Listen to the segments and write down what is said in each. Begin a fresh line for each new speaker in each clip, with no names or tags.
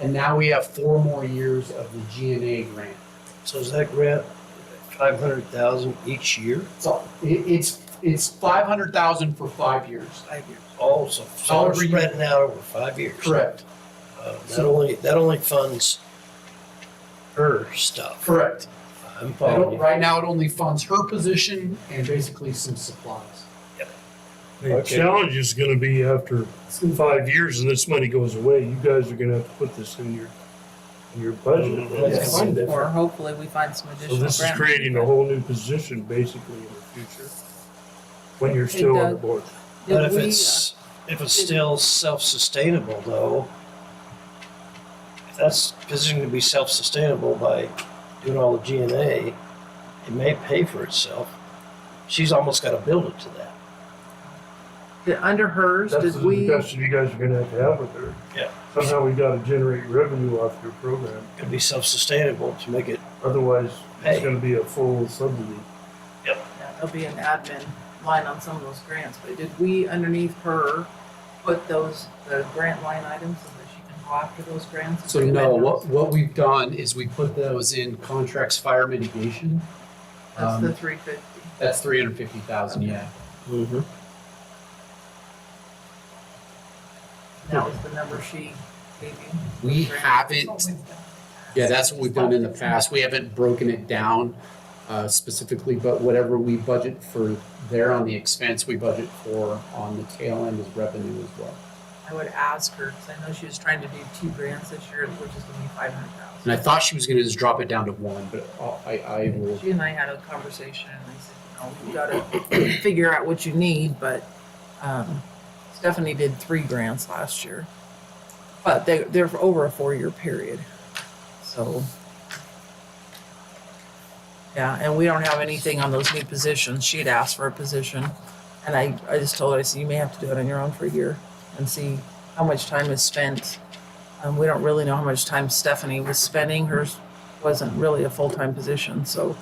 And now we have four more years of the GNA grant.
So is that grant five hundred thousand each year?
So it, it's, it's five hundred thousand for five years.
Five years. Oh, so
All
so we're
over you.
spreading out over five years.
Correct,
Uh, That only, that only funds her stuff.
correct.
I'm
I
following
don't-
you.
Right now, it only funds her position and basically some supplies.
The
Okay.
challenge is gonna be after five years and this money goes away, you guys are gonna have to put this in your, in your budget.
Mhm. Yes.
Find it.
Or hopefully we find some
So
additional grant.
this is creating a whole new position basically in the future, when you're still on the
Doug.
board.
Did
But if
we, uh,
it's, if it's
did-
still self-sustainable though, if that's positioned to be self-sustainable by doing all the G and A, it may pay for itself. She's almost got to build it to that.
did- uh, Under hers,
That's
did
the
we,
discussion you guys are gonna have to have with her.
Yeah.
Somehow we gotta generate revenue off your program,
Could be self-sustainable to make it
otherwise it's
Hey.
gonna be a full subsidy.
yeah, there'll be an admin line on some of those grants, but did we underneath her put those, the grant line items so that she can go after those grants? and
So
recommend
no,
those?
what, what we've done is we put those in contracts fire mitigation.
That's the
Um,
three fifty.
That's three hundred fifty thousand, yeah.
That was the number she gave you.
We
Grant.
haven't, yeah, that's what we've done in the past. We haven't broken it down uh, specifically, but whatever we budget for there on the expense, we budget for on the tail end as revenue as well.
I would ask her, because I know she was trying to do two grants this year, which is gonna be five hundred
And I
thousand.
thought she was gonna just drop it down to one, but uh, I, I will.
She and I had a conversation and I said, you know, you gotta figure out what you need, but, um, Stephanie did three grants last year. But they, they're for over a four-year period, so. Yeah, and we don't have anything on those new positions. She'd asked for a position. And I, I just told her, I said, you may have to do it on your own for a year and see how much time is spent. Um, we don't really know how much time Stephanie was spending. Hers wasn't really a full-time position, so.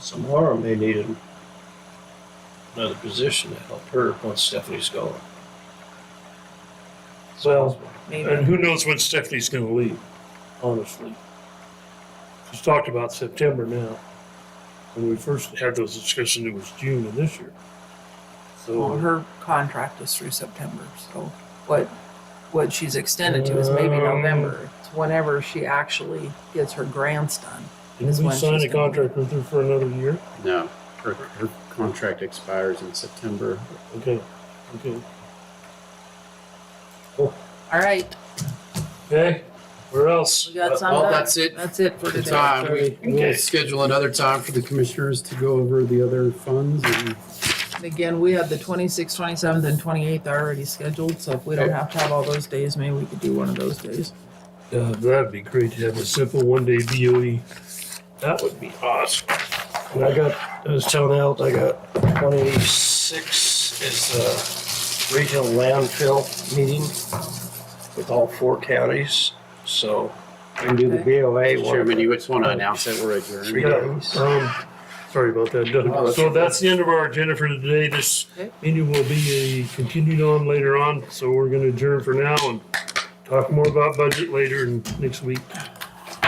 So Laura may need an- another position to help her once Stephanie's gone.
Well,
Maybe.
and who knows when Stephanie's gonna leave, honestly. She's talked about September now. When we first had those discussions, it was June of this year.
Well,
So
her contract is through September, so what, what she's extended to is maybe
Oh.
November. It's whenever she actually gets her grants done.
didn't we
when
sign a
she's gonna-
contract with her for another year?
No, her, her contract expires in September.
Okay, okay.
All right,
Okay, where else?
we got some,
Well,
of that.
that's it.
that's it for
The
today.
time, we, we'll
Okay.
schedule another time for the commissioners to go over the other funds and.
And Again, we have the twenty-sixth, twenty-seventh, and twenty-eighth already scheduled, so if we don't
Okay.
have to have all those days, maybe we could do one of those days.
Uh, that'd be great to have a simple one-day BOE. That would be awesome.
And I got, I was telling Al, I got twenty-six is the regional landfill meeting with all four counties, so we can do the
Okay.
BOA
Chairman,
one.
you just want to announce that we're adjourned?
Three
Yeah,
days.
um, sorry about that,
No,
Doug.
Oh, that's
So
okay.
that's the end of our agenda for today. This
Okay.
meeting will be uh, continued on later on, so we're gonna adjourn for now and talk more about budget later and next week.